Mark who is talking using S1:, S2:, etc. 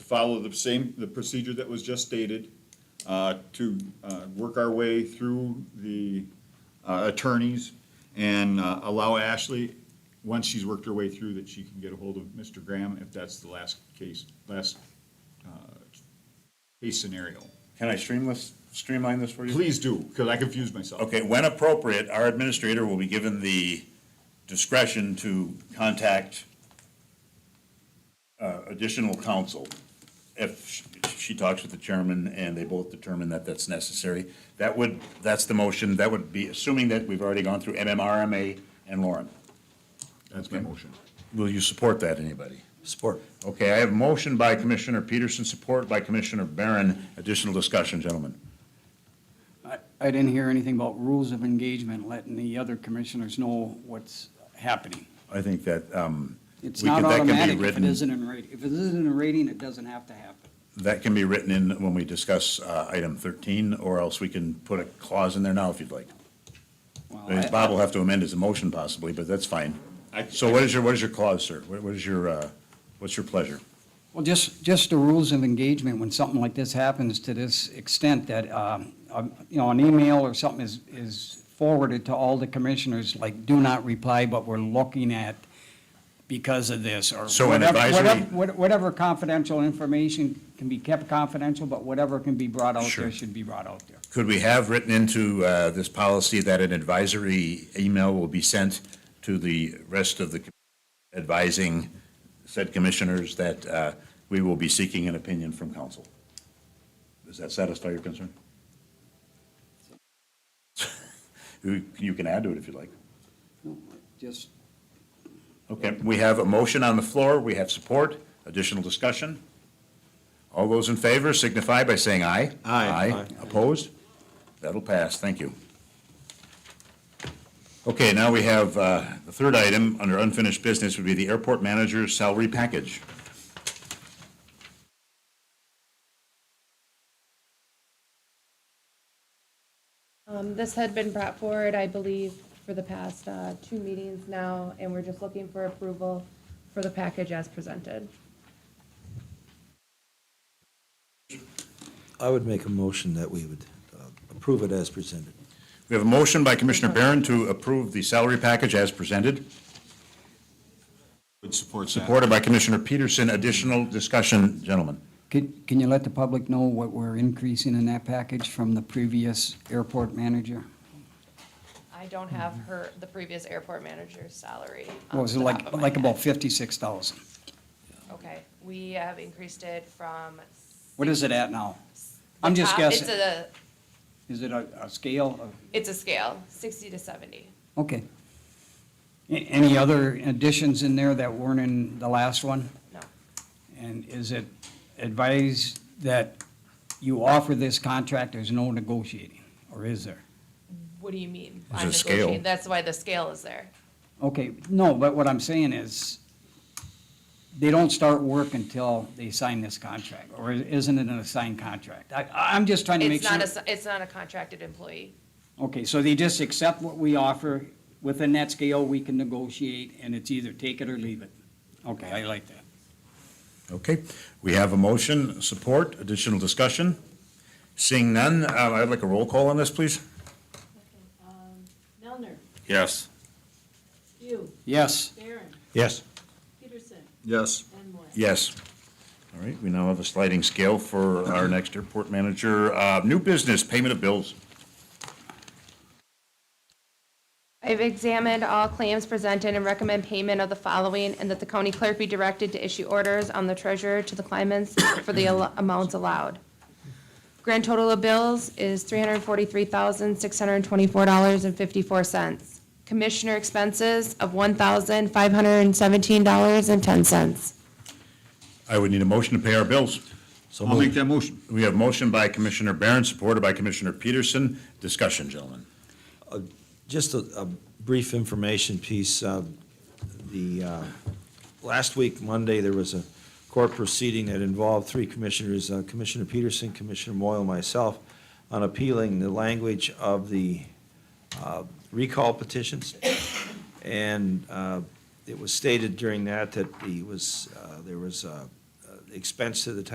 S1: follow the same, the procedure that was just stated, uh, to uh, work our way through the uh, attorneys and uh, allow Ashley, once she's worked her way through, that she can get a hold of Mr. Graham if that's the last case, last uh, case scenario.
S2: Can I stream this, streamline this for you?
S1: Please do, because I confused myself.
S2: Okay, when appropriate, our administrator will be given the discretion to contact uh, additional counsel if sh- she talks with the chairman and they both determine that that's necessary. That would, that's the motion, that would be, assuming that we've already gone through MMRMA and Lauren.
S1: That's my motion.
S2: Will you support that, anybody?
S3: Support.
S2: Okay, I have a motion by Commissioner Peterson, support by Commissioner Barron. Additional discussion, gentlemen.
S4: I, I didn't hear anything about rules of engagement, letting the other commissioners know what's happening.
S2: I think that, um,
S4: It's
S2: we
S4: not
S2: could- that can be
S4: automatic if it
S2: written-
S4: isn't in rating. If it isn't in rating, it doesn't have to happen.
S2: That can be written in when we discuss uh, item 13, or else we can put a clause in there now if you'd like.
S4: Well,
S2: I mean, Bob will have to amend his motion possibly, but that's fine.
S1: I-
S2: So what is your, what is your clause, sir? What what is your, uh, what's your pleasure?
S4: Well, just, just the rules of engagement, when something like this happens to this extent that, um, um, you know, an email or something is, is forwarded to all the commissioners, like, do not reply, but we're looking at because of this, or.
S2: So an
S4: whatever-
S2: advisory-
S4: whatever- Whatever confidential information can be kept confidential, but whatever can be brought out
S2: Sure.
S4: there should be brought out there.
S2: Could we have written into uh, this policy that an advisory email will be sent to the rest of the com- advising said commissioners that uh, we will be seeking an opinion from council? Does that satisfy your concern? You you can add to it if you'd like.
S4: Just,
S2: Okay, we have a motion on the floor, we have support, additional discussion. All those in favor signify by saying aye.
S3: Aye.
S2: Aye,
S3: Aye.
S2: opposed? That'll pass, thank you. Okay, now we have, uh, the third item under unfinished business would be the airport manager's salary package.
S5: Um, this had been brought forward, I believe, for the past, uh, two meetings now, and we're just looking for approval for the package as presented.
S3: I would make a motion that we would uh, approve it as presented.
S2: We have a motion by Commissioner Barron to approve the salary package as presented,
S1: Would support that.
S2: supported by Commissioner Peterson. Additional discussion, gentlemen.
S4: can, can you let the public know what we're increasing in that package from the previous airport manager?
S5: I don't have her, the previous airport manager's salary. off
S4: What was it,
S5: the top
S4: like,
S5: of my
S4: like
S5: head.
S4: about fifty-six thousand?
S5: Okay, we have increased it from.
S4: What is it at now? I'm
S5: the
S4: just
S5: top-
S4: guessing.
S5: It's a,
S4: Is it a, a scale of?
S5: it's a scale, sixty to seventy.
S4: Okay. A- Any other additions in there that weren't in the last one?
S5: No,
S4: And is it advised that you offer this contract, there's no negotiating, or is there?
S5: what do you mean?
S2: It's
S5: I'm
S2: a scale.
S5: negotiating? That's why the scale is there.
S4: Okay, no, but what I'm saying is, they don't start work until they sign this contract, or isn't it a signed contract? I, I'm just trying to make
S5: It's
S4: sure.
S5: not a, s- it's not a contracted employee.
S4: Okay, so they just accept what we offer, within that scale, we can negotiate, and it's either take it or leave it. Okay, I like that.
S2: Okay, we have a motion, support, additional discussion. Seeing none, uh, I'd like a roll call on this, please.
S6: Um, Melner,
S2: Yes.
S6: Hugh,
S4: Yes,
S6: Barron,
S3: Yes.
S6: Peterson,
S1: Yes.
S6: and Moore.
S2: Yes. All right, we now have a sliding scale for our next airport manager. Uh, New business, payment of bills.
S5: I've examined all claims presented and recommend payment of the following, and that the county clerk be directed to issue orders on the treasurer to the claimants for the al- amounts allowed. Grand total of bills is three hundred forty-three thousand, six hundred twenty-four dollars and fifty-four cents. Commissioner expenses of one thousand, five hundred and seventeen dollars and ten cents.
S2: I would need a motion to pay our bills.
S3: So
S1: I'll make
S3: moved.
S1: that motion.
S2: We have motion by Commissioner Barron, supported by Commissioner Peterson. Discussion, gentlemen.
S3: Just a, a brief information piece. uh, The, uh, last week, Monday, there was a court proceeding that involved three commissioners, uh, Commissioner Peterson, Commissioner Moyle, and myself, on appealing the language of the uh, recall petitions. And uh, it was stated during that that the was, uh, there was uh, uh, expense to the town